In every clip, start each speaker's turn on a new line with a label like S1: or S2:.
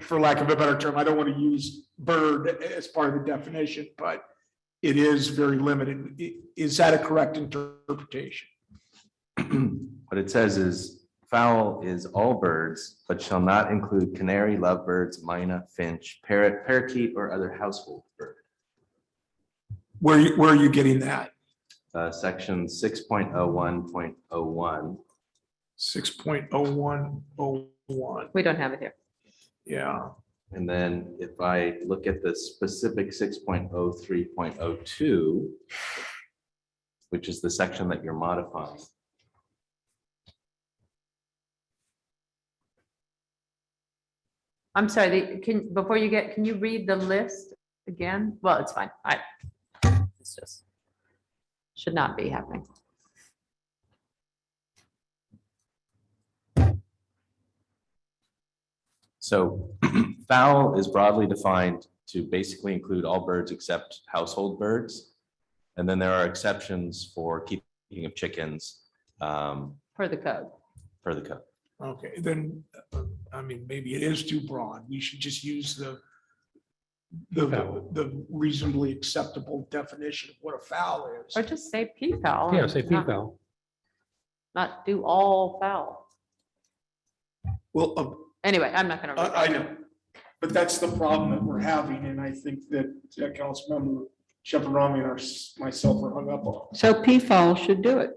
S1: for lack of a better term, I don't want to use bird a- as part of the definition, but it is very limited. I- Is that a correct interpretation?
S2: What it says is fowl is all birds, but shall not include canary, lovebirds, mina, finch, parrot, parakeet, or other household bird.
S1: Where, you- where are you getting that?
S2: Uh, section six point oh one point oh one.
S1: Six point oh one oh one,
S3: We don't have it here.
S1: yeah.
S2: And then if I look at the specific six point oh three point oh two, which is the section that you're modifying.
S3: I'm sorry, the- can, before you get, can you read the list again? Well, it's fine. I, it's just, should not be happening.
S2: So fowl is broadly defined to basically include all birds except household birds. And then there are exceptions for keeping of chickens um,
S3: Per the code.
S2: per the code.
S1: Okay, then, uh, I mean, maybe it is too broad. We should just use the the, the reasonably acceptable definition of what a foul is.
S3: Or just say P fowl.
S4: Yeah,
S3: and
S4: say
S3: not-
S4: PFAL.
S3: Not do all fowl.
S1: Well, a-
S3: Anyway, I'm not gonna. read
S1: I, I
S3: that.
S1: know, but that's the problem that we're having, and I think that uh, Councilmember Shepherd-Romney and our- myself are hung up on.
S5: So PFOL should do it.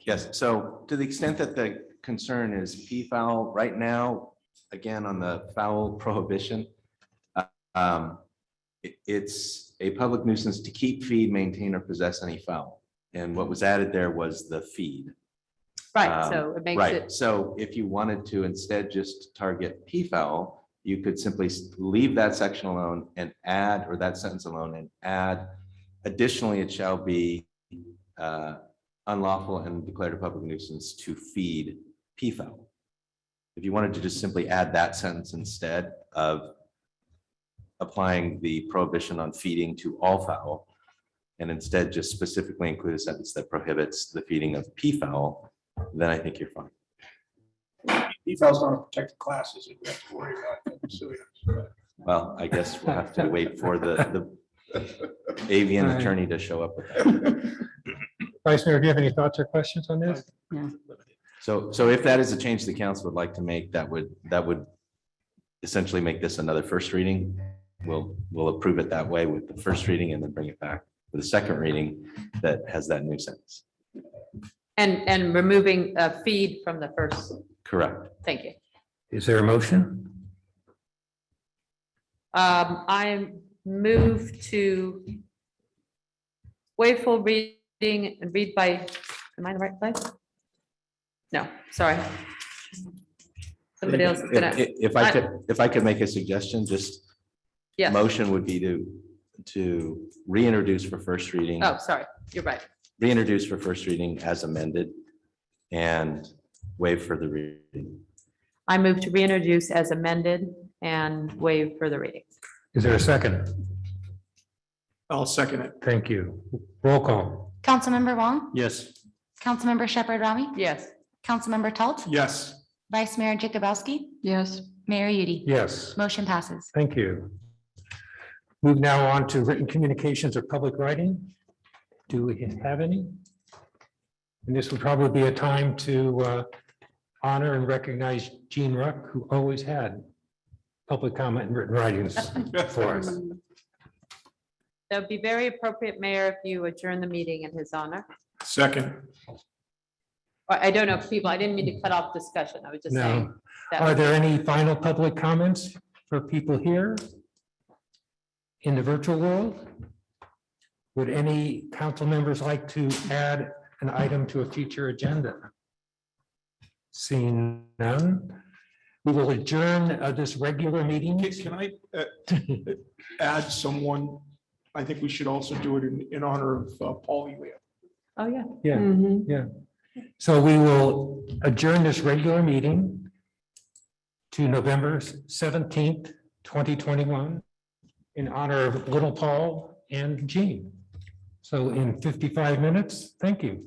S2: Yes, so to the extent that the concern is P-fowl, right now, again, on the fowl prohibition, uh, um, it- it's a public nuisance to keep, feed, maintain, or possess any fowl. And what was added there was the feed.
S3: Right, so it makes
S2: Um, Right,
S3: it,
S2: so if you wanted to instead just target P-fowl, you could simply s- leave that section alone and add, or that sentence alone and add. Additionally, it shall be uh, unlawful and declared a public nuisance to feed P-fowl. If you wanted to just simply add that sentence instead of applying the prohibition on feeding to all fowl, and instead just specifically include a sentence that prohibits the feeding of P-fowl, then I think you're fine.
S1: Eval's not a protected class, is it? We have to worry about that, so, yeah.
S2: Well, I guess we'll have to wait for the, the avian
S4: All right.
S2: attorney to show up. with that.
S4: Vice Mayor, do you have any thoughts or questions on this?
S2: So, so if that is a change the council would like to make, that would, that would essentially make this another first reading. We'll, we'll approve it that way with the first reading and then bring it back for the second reading that has that new sentence.
S3: and, and removing a feed from the first,
S2: Correct.
S3: thank you.
S4: Is there a motion?
S3: Um, I move to waive full reading and read by, am I in the right place? No, sorry. Somebody else is
S2: If
S3: gonna,
S2: if- if I could, if I could make a suggestion, just
S3: yeah,
S2: motion would be to, to reintroduce for first reading.
S3: oh, sorry, you're right.
S2: reintroduce for first reading as amended and waive further reading.
S3: I move to reintroduce as amended and waive further reading.
S4: Is there a second?
S1: I'll second it.
S4: Thank you. Roll call.
S6: Councilmember Wong,
S1: Yes.
S6: Councilmember Shepherd Rami,
S3: Yes,
S6: Councilmember Talt,
S1: Yes.
S6: Vice Mayor Jacobowski,
S5: Yes.
S6: Mayor Udi.
S4: Yes,
S6: Motion passes.
S4: thank you. Move now on to written communications or public writing. Do we have any? And this would probably be a time to uh, honor and recognize Gene Ruck, who always had public comment and written writings for us.
S3: that would be very appropriate, Mayor, if you adjourn the meeting in his honor.
S1: Second.
S3: I, I don't know, if people, I didn't mean to cut off discussion, I was just saying.
S4: No.
S3: that
S4: Are there any final public comments for people here? In the virtual world? Would any council members like to add an item to a future agenda? Seeing none, we will adjourn uh, this regular meeting.
S1: Can can I uh, add someone? I think we should also do it in, in honor of uh, Paul Elia.
S3: Oh, yeah.
S4: Yeah. So we will adjourn this regular meeting to November seventeenth, twenty twenty-one in honor of Little Paul and Jean. So in fifty-five minutes, thank you.